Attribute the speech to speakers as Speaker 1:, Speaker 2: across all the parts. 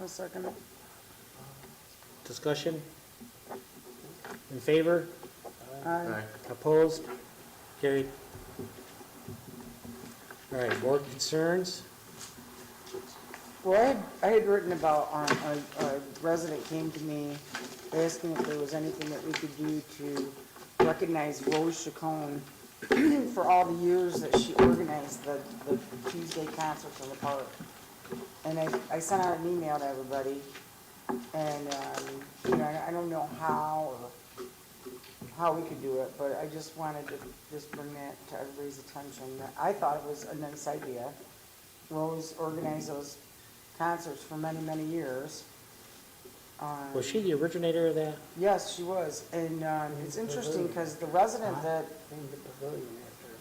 Speaker 1: I'll second it.
Speaker 2: Discussion? In favor?
Speaker 1: Aye.
Speaker 2: Opposed? Carried. All right, board concerns?
Speaker 1: Well, I had, I had written about, um, a, a resident came to me asking if there was anything that we could do to recognize Rose Chacon for all the years that she organized the, the Tuesday concerts in the park. And I, I sent out an email to everybody, and, um, you know, I- I don't know how, or how we could do it, but I just wanted to just bring that to everybody's attention, that I thought it was a nice idea. Rose organized those concerts for many, many years. Um,
Speaker 2: Was she the originator of that?
Speaker 1: Yes, she was, and, um, it's interesting, because the resident that,
Speaker 3: Named the pavilion after.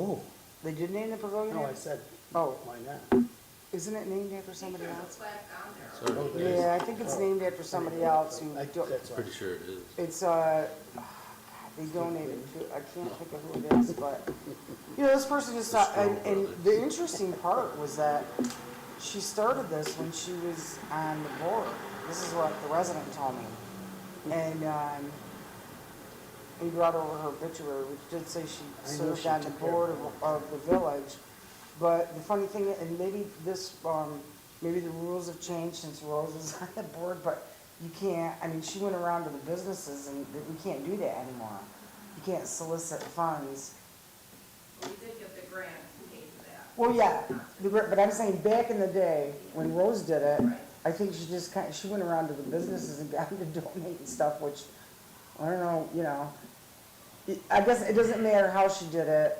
Speaker 2: Oh.
Speaker 1: they did name the pavilion
Speaker 3: No, I
Speaker 1: after,
Speaker 3: said,
Speaker 1: oh,
Speaker 3: why not?
Speaker 1: isn't it named after somebody else?
Speaker 3: Oh, there is.
Speaker 1: Yeah, I think it's named after somebody else who,
Speaker 3: I-
Speaker 1: do-
Speaker 3: That's why.
Speaker 4: Pretty sure it is.
Speaker 1: it's, uh, God, they donated to, I can't think of who it is, but, you know, this person just, thought- and, and the interesting part was that she started this when she was on the board. This is what the resident told me. And, um, he brought over her obituary, which did say she
Speaker 3: I know
Speaker 1: served
Speaker 3: she
Speaker 1: on the
Speaker 3: took care of
Speaker 1: board of, of the village. But the funny thing, and maybe this, um, maybe the rules have changed since Rose is on the board, but you can't, I mean, she went around to the businesses and th- we can't do that anymore. You can't solicit funds.
Speaker 5: We did get the grant to pay for that.
Speaker 1: Well, yeah, the gr- but I'm saying back in the day, when Rose did it, I think she just kind, she went around to the businesses and got them to donate and stuff, which, I don't know, you know. It- I guess it doesn't matter how she did it,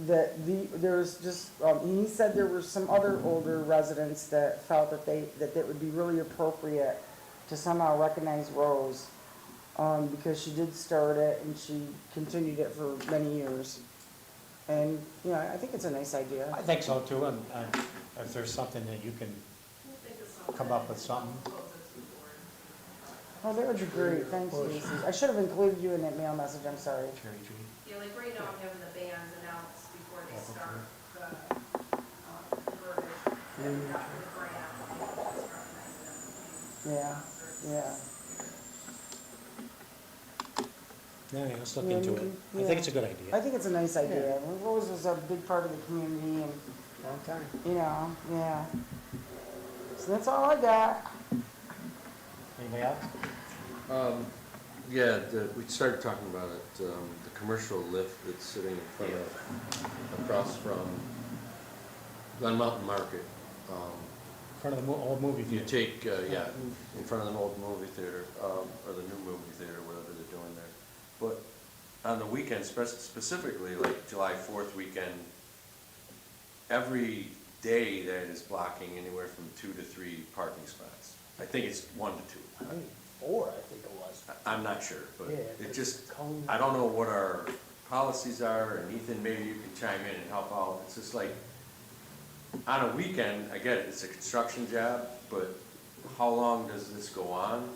Speaker 1: that the, there's just, um, he said there were some other older residents that felt that they, that it would be really appropriate to somehow recognize Rose, um, because she did start it and she continued it for many years. And, you know, I think it's a nice idea.
Speaker 6: I think so too, and, and if there's something that you can come up with something,
Speaker 1: Oh, that would be great, thanks, Lucy. I should have included you in that mail message, I'm sorry.
Speaker 6: Jerry G.
Speaker 5: Yeah, like right now, I'm having the bands announce before they start the, um, verbiage. that we got for the grant.
Speaker 1: Yeah, yeah.
Speaker 2: No, yeah, let's look
Speaker 1: Yeah,
Speaker 2: into
Speaker 1: we
Speaker 2: it.
Speaker 1: can-
Speaker 2: I
Speaker 1: yeah.
Speaker 2: think it's a good
Speaker 1: I
Speaker 2: idea.
Speaker 1: think it's a nice idea. Rose was a big part of the community and,
Speaker 3: Long time.
Speaker 1: you know, yeah. So that's all I got.
Speaker 6: Anybody else?
Speaker 4: Um, yeah, the, we started talking about it, um, the commercial lift that's sitting in front of, across from Glen Mountain Market. Um,
Speaker 6: In front of the mo- old movie
Speaker 4: if you
Speaker 6: theater.
Speaker 4: take, uh, yeah, in front of an old movie theater, um, or the new movie theater, whatever they're doing there. But on the weekends, spe- specifically like July fourth weekend, every day that is blocking anywhere from two to three parking spots. I think it's one to two.
Speaker 3: I mean, Four, I think it was.
Speaker 4: I- I'm not sure, but
Speaker 3: Yeah,
Speaker 4: it
Speaker 3: it's
Speaker 4: just,
Speaker 3: cone.
Speaker 4: I don't know what our policies are, and Ethan, maybe you can chime in and help out. It's just like, on a weekend, I get it, it's a construction job, but how long does this go on?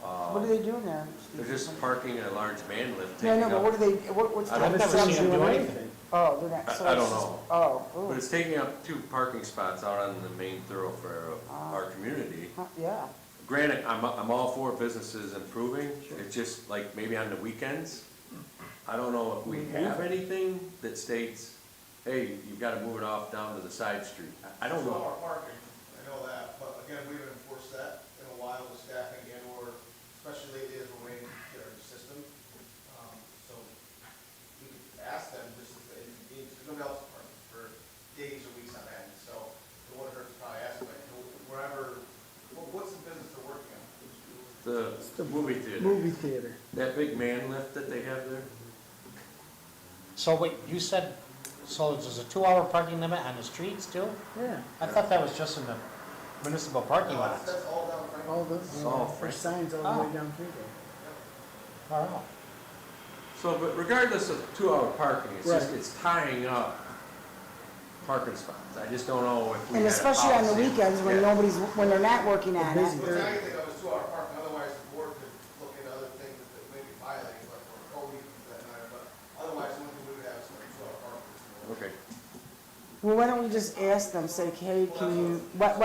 Speaker 1: What are they doing there?
Speaker 4: Uh, They're just parking a large man lift
Speaker 1: Yeah, I
Speaker 4: taking
Speaker 1: know, but what are
Speaker 4: up,
Speaker 1: they, what, what's?
Speaker 4: I
Speaker 1: the-
Speaker 4: don't
Speaker 2: I've never seen him do
Speaker 3: doing
Speaker 2: anything.
Speaker 1: Oh, they're not, so
Speaker 4: I- I
Speaker 1: it's
Speaker 4: don't
Speaker 1: just-
Speaker 4: know.
Speaker 1: Oh,
Speaker 4: but
Speaker 1: ooh,
Speaker 4: it's taking up two parking spots out on the main thoroughfare of our community.
Speaker 1: huh, yeah.
Speaker 4: Granted, I'm, I'm all for businesses improving, it's just like maybe on the weekends. I don't know if we have anything that states, hey, you've gotta move it off down to the side street. I I don't
Speaker 7: It's
Speaker 4: know.
Speaker 7: all parking, I know that, but again, we haven't enforced that in a while with staffing and or especially lately as we're waiting to get our new system. Um, So we could ask them just if they, because nobody else is parking for days or weeks on end, so it wouldn't hurt to probably ask, like, wherever, what- what's the business they're working on?
Speaker 4: The movie theater,
Speaker 3: Movie theater.
Speaker 4: that big man lift that they have there,
Speaker 2: So wait, you said, so there's a two-hour parking limit on the streets too?
Speaker 3: Yeah,
Speaker 2: I thought that was just in the municipal parking
Speaker 7: No, that's-
Speaker 2: lots.
Speaker 7: That's all down Franklin.
Speaker 3: all those,
Speaker 4: Oh,
Speaker 3: there's
Speaker 4: Frank.
Speaker 3: signs all the
Speaker 2: Oh.
Speaker 3: way down through there.
Speaker 2: Wow.
Speaker 4: so, but regardless of two-hour parking, it's just,
Speaker 3: Right.
Speaker 4: it's tying up parking spots. I just don't know if
Speaker 1: And
Speaker 4: we had a
Speaker 1: especially on the
Speaker 4: policy.
Speaker 1: weekends when
Speaker 4: Yeah.
Speaker 1: nobody's, when they're not working on it.
Speaker 3: Busy.
Speaker 7: Well, it's not anything that was two hour parking, otherwise the board could look into other things that they may be violating, like for code reasons that matter, but otherwise, we would have some two hour parking.
Speaker 4: Okay.
Speaker 1: Well, why don't we just ask them, say, hey, can you, what,